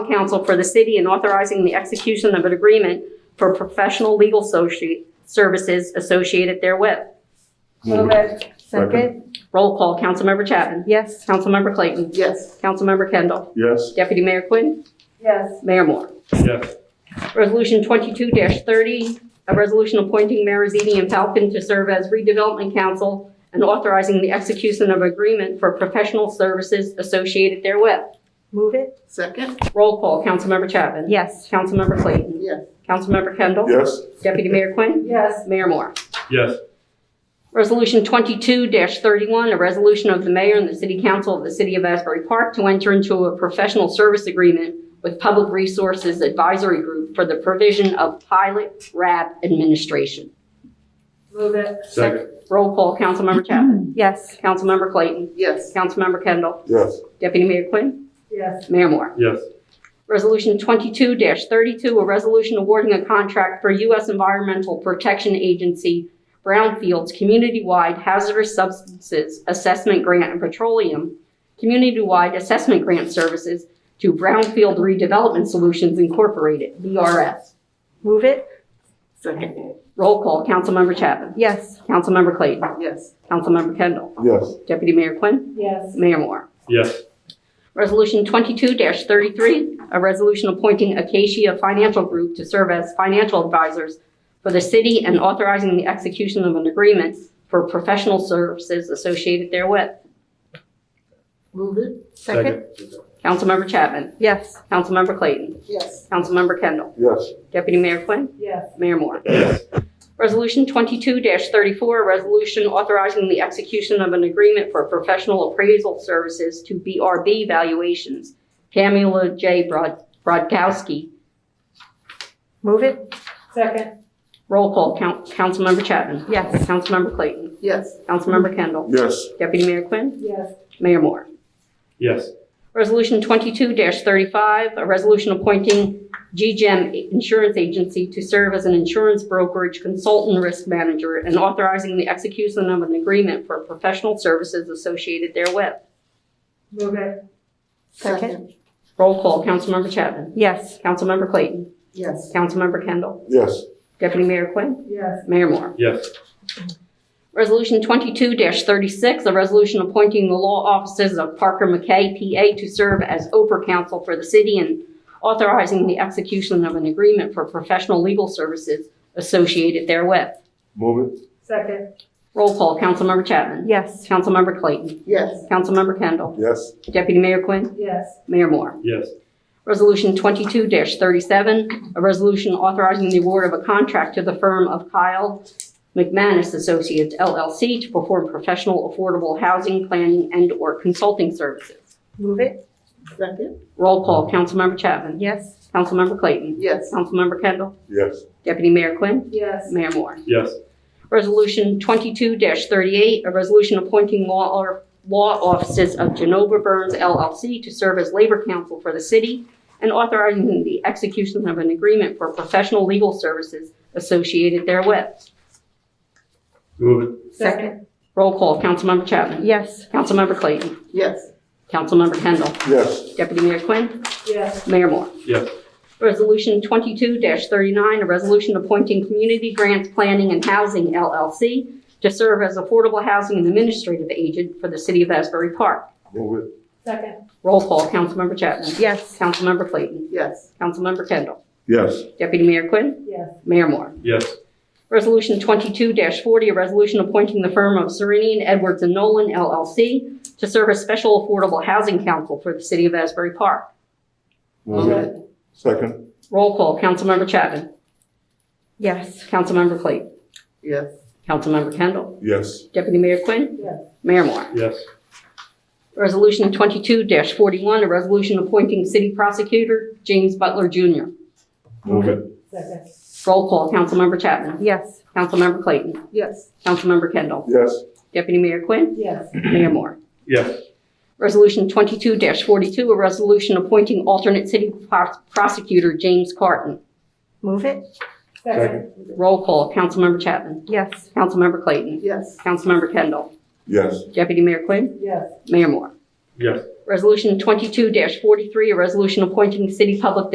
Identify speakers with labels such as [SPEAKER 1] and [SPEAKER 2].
[SPEAKER 1] counsel for the city and authorizing the execution of an agreement for professional legal associ- services associated therewith.
[SPEAKER 2] Move it. Second.
[SPEAKER 1] Roll call, Councilmember Chapman.
[SPEAKER 2] Yes.
[SPEAKER 1] Councilmember Clayton.
[SPEAKER 2] Yes.
[SPEAKER 1] Councilmember Kendall.
[SPEAKER 3] Yes.
[SPEAKER 1] Deputy Mayor Quinn.
[SPEAKER 2] Yes.
[SPEAKER 1] Mayor Moore.
[SPEAKER 3] Yes.
[SPEAKER 1] Resolution 22-30, a resolution appointing Marizini and Falcon to serve as redevelopment council and authorizing the execution of agreement for professional services associated therewith.
[SPEAKER 2] Move it.
[SPEAKER 4] Second?
[SPEAKER 1] Roll call, Councilmember Chapman.
[SPEAKER 2] Yes.
[SPEAKER 1] Councilmember Clayton.
[SPEAKER 4] Yes.
[SPEAKER 1] Councilmember Kendall.
[SPEAKER 3] Yes.
[SPEAKER 1] Deputy Mayor Quinn.
[SPEAKER 2] Yes.
[SPEAKER 1] Mayor Moore.
[SPEAKER 3] Yes.
[SPEAKER 1] Resolution 22-31, a resolution of the mayor and the city council of the city of Asbury Park to enter into a professional service agreement with Public Resources Advisory Group for the provision of pilot RAB administration.
[SPEAKER 2] Move it.
[SPEAKER 3] Second.
[SPEAKER 1] Roll call, Councilmember Chapman.
[SPEAKER 2] Yes.
[SPEAKER 1] Councilmember Clayton.
[SPEAKER 4] Yes.
[SPEAKER 1] Councilmember Kendall.
[SPEAKER 3] Yes.
[SPEAKER 1] Deputy Mayor Quinn.
[SPEAKER 2] Yes.
[SPEAKER 1] Mayor Moore.
[SPEAKER 3] Yes.
[SPEAKER 1] Resolution 22-32, a resolution awarding a contract for U.S. Environmental Protection Agency Brownfields Community-Wide Hazardous Substances Assessment Grant and Petroleum Community-Wide Assessment Grant Services to Brownfield Redevelopment Solutions Incorporated, BRS.
[SPEAKER 2] Move it.
[SPEAKER 4] Second?
[SPEAKER 1] Roll call, Councilmember Chapman.
[SPEAKER 2] Yes.
[SPEAKER 1] Councilmember Clayton.
[SPEAKER 4] Yes.
[SPEAKER 1] Councilmember Kendall.
[SPEAKER 3] Yes.
[SPEAKER 1] Deputy Mayor Quinn.
[SPEAKER 2] Yes.
[SPEAKER 1] Mayor Moore.
[SPEAKER 3] Yes.
[SPEAKER 1] Resolution 22-33, a resolution appointing Acacia Financial Group to serve as financial advisors for the city and authorizing the execution of an agreement for professional services associated therewith.
[SPEAKER 4] Move it?
[SPEAKER 2] Second.
[SPEAKER 1] Councilmember Chapman.
[SPEAKER 2] Yes.
[SPEAKER 1] Councilmember Clayton.
[SPEAKER 4] Yes.
[SPEAKER 1] Councilmember Kendall.
[SPEAKER 3] Yes.
[SPEAKER 1] Deputy Mayor Quinn.
[SPEAKER 2] Yes.
[SPEAKER 1] Mayor Moore.
[SPEAKER 3] Yes.
[SPEAKER 1] Resolution 22-34, a resolution authorizing the execution of an agreement for professional appraisal services to BRB valuations. Camula J. Brod- Brodkowski,
[SPEAKER 2] Move it. Second.
[SPEAKER 1] Roll call, Coun- Councilmember Chapman.
[SPEAKER 2] Yes.
[SPEAKER 1] Councilmember Clayton.
[SPEAKER 4] Yes.
[SPEAKER 1] Councilmember Kendall.
[SPEAKER 3] Yes.
[SPEAKER 1] Deputy Mayor Quinn.
[SPEAKER 2] Yes.
[SPEAKER 1] Mayor Moore.
[SPEAKER 3] Yes.
[SPEAKER 1] Resolution 22-35, a resolution appointing GGEM Insurance Agency to serve as an insurance brokerage consultant risk manager and authorizing the execution of an agreement for professional services associated therewith.
[SPEAKER 2] Move it. Second.
[SPEAKER 1] Roll call, Councilmember Chapman.
[SPEAKER 2] Yes.
[SPEAKER 1] Councilmember Clayton.
[SPEAKER 4] Yes.
[SPEAKER 1] Councilmember Kendall.
[SPEAKER 3] Yes.
[SPEAKER 1] Deputy Mayor Quinn.
[SPEAKER 2] Yes.
[SPEAKER 1] Mayor Moore.
[SPEAKER 3] Yes.
[SPEAKER 1] Resolution 22-36, a resolution appointing the law offices of Parker McKay, PA, to serve as Oprah counsel for the city and authorizing the execution of an agreement for professional legal services associated therewith.
[SPEAKER 3] Move it.
[SPEAKER 2] Second.
[SPEAKER 1] Roll call, Councilmember Chapman.
[SPEAKER 2] Yes.
[SPEAKER 1] Councilmember Clayton.
[SPEAKER 4] Yes.
[SPEAKER 1] Councilmember Kendall.
[SPEAKER 3] Yes.
[SPEAKER 1] Deputy Mayor Quinn.
[SPEAKER 2] Yes.
[SPEAKER 1] Mayor Moore.
[SPEAKER 3] Yes.
[SPEAKER 1] Resolution 22-37, a resolution authorizing the award of a contract to the firm of Kyle McManus Associates LLC to perform professional affordable housing planning and/or consulting services.
[SPEAKER 2] Move it.
[SPEAKER 4] Second?
[SPEAKER 1] Roll call, Councilmember Chapman.
[SPEAKER 2] Yes.
[SPEAKER 1] Councilmember Clayton.
[SPEAKER 4] Yes.
[SPEAKER 1] Councilmember Kendall.
[SPEAKER 3] Yes.
[SPEAKER 1] Deputy Mayor Quinn.
[SPEAKER 2] Yes.
[SPEAKER 1] Mayor Moore.
[SPEAKER 3] Yes.
[SPEAKER 1] Resolution 22-38, a resolution appointing law or- law offices of Genova Burns LLC to serve as labor counsel for the city and authorizing the execution of an agreement for professional legal services associated therewith.
[SPEAKER 3] Move it.
[SPEAKER 2] Second.
[SPEAKER 1] Roll call, Councilmember Chapman.
[SPEAKER 2] Yes.
[SPEAKER 1] Councilmember Clayton.
[SPEAKER 4] Yes.
[SPEAKER 1] Councilmember Kendall.
[SPEAKER 3] Yes.
[SPEAKER 1] Deputy Mayor Quinn.
[SPEAKER 2] Yes.
[SPEAKER 1] Mayor Moore.
[SPEAKER 3] Yes.
[SPEAKER 1] Resolution 22-39, a resolution appointing Community Grants Planning and Housing LLC to serve as affordable housing and administrative agent for the city of Asbury Park.
[SPEAKER 3] Move it.
[SPEAKER 2] Second.
[SPEAKER 1] Roll call, Councilmember Chapman.
[SPEAKER 2] Yes.
[SPEAKER 1] Councilmember Clayton.
[SPEAKER 4] Yes.
[SPEAKER 1] Councilmember Kendall.
[SPEAKER 3] Yes.
[SPEAKER 1] Deputy Mayor Quinn.
[SPEAKER 2] Yes.
[SPEAKER 1] Mayor Moore.
[SPEAKER 3] Yes.
[SPEAKER 1] Resolution 22-40, a resolution appointing the firm of Serenian Edwards and Nolan LLC to serve as special affordable housing counsel for the city of Asbury Park.
[SPEAKER 3] Move it. Second.
[SPEAKER 1] Roll call, Councilmember Chapman.
[SPEAKER 2] Yes.
[SPEAKER 1] Councilmember Clayton.
[SPEAKER 4] Yes.
[SPEAKER 1] Councilmember Kendall.
[SPEAKER 3] Yes.
[SPEAKER 1] Deputy Mayor Quinn?
[SPEAKER 2] Yes.
[SPEAKER 1] Mayor Moore.
[SPEAKER 3] Yes.
[SPEAKER 1] Resolution 22-41, a resolution appointing city prosecutor James Butler Jr.
[SPEAKER 3] Move it.
[SPEAKER 2] Second.
[SPEAKER 1] Roll call, Councilmember Chapman.
[SPEAKER 2] Yes.
[SPEAKER 1] Councilmember Clayton.
[SPEAKER 4] Yes.
[SPEAKER 1] Councilmember Kendall.
[SPEAKER 3] Yes.
[SPEAKER 1] Deputy Mayor Quinn?
[SPEAKER 2] Yes.
[SPEAKER 1] Mayor Moore.
[SPEAKER 3] Yes.
[SPEAKER 1] Resolution 22-42, a resolution appointing alternate city pro- prosecutor James Carton.
[SPEAKER 2] Move it.
[SPEAKER 3] Second.
[SPEAKER 1] Roll call, Councilmember Chapman.
[SPEAKER 2] Yes.
[SPEAKER 1] Councilmember Clayton.
[SPEAKER 4] Yes.
[SPEAKER 1] Councilmember Kendall.
[SPEAKER 3] Yes.
[SPEAKER 1] Deputy Mayor Quinn?
[SPEAKER 2] Yes.
[SPEAKER 1] Mayor Moore.
[SPEAKER 3] Yes.
[SPEAKER 1] Resolution 22-43, a resolution appointing city public